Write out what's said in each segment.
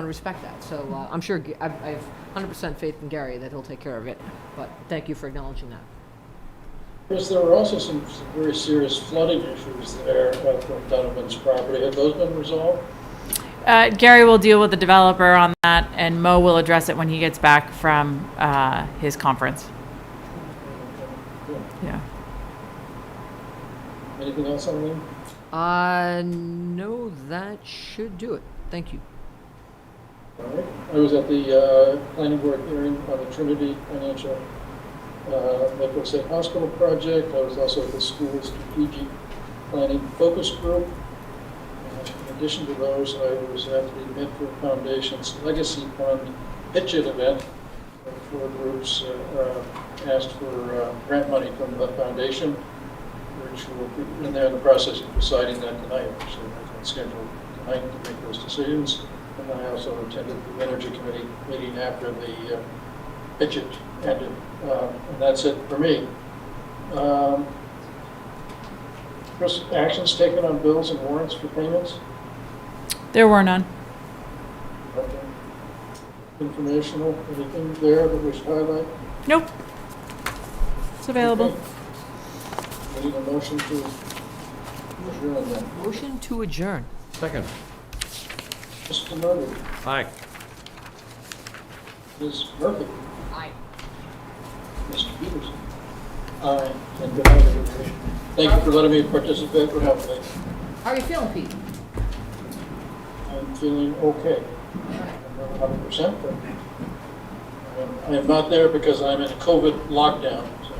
want to respect that. So uh, I'm sure, G- I've- I have 100% faith in Gary that he'll take care of it, but thank you for acknowledging that. Chris, there were also some very serious flooding issues there at Brooke Donovan's property. Have those been resolved? Uh, Gary will deal with the developer on that, and Mo will address it when he gets back from uh, his conference. Good. Yeah. Anything else on them? Uh, no, that should do it. Thank you. All right. I was at the uh, planning board hearing on the Trinity Financial uh, Lakeville State Hospital project. I was also at the school strategic planning focus group. Uh, In addition to those, I was at the Medford Foundation's Legacy Fund Pitch It event. where Four groups uh, uh, asked for uh, grant money from the foundation, which will, and they're in the process of deciding that tonight. So that's scheduled tonight to make those decisions. And I also attended the Energy Committee meeting after the uh, pitch it ended. Uh, And that's it for me. Um, Chris, actions taken on bills and warrants for payments? There were none. Okay. Informational, anything there that we should highlight? Nope. It's available. Okay. We Need a motion to adjourn then. Motion to adjourn. Second. Mr. Murphy, Aye. Ms. Murphy, Aye. Mr. Peterson. Aye, and good night, everybody. Thank you for letting me participate, for helping. me. How are you feeling, Pete? I'm feeling okay. I'm not 100%, but I'm- I am not there because I'm in a COVID lockdown. So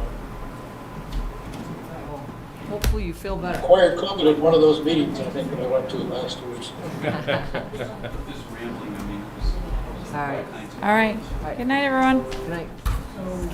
Hopefully you feel better. Acquired COVID at one of those meetings, I think, that I went to last week. This rambling, I mean, it was- it was All right. all kinds of- All right. All right. Good night, everyone. Good night. So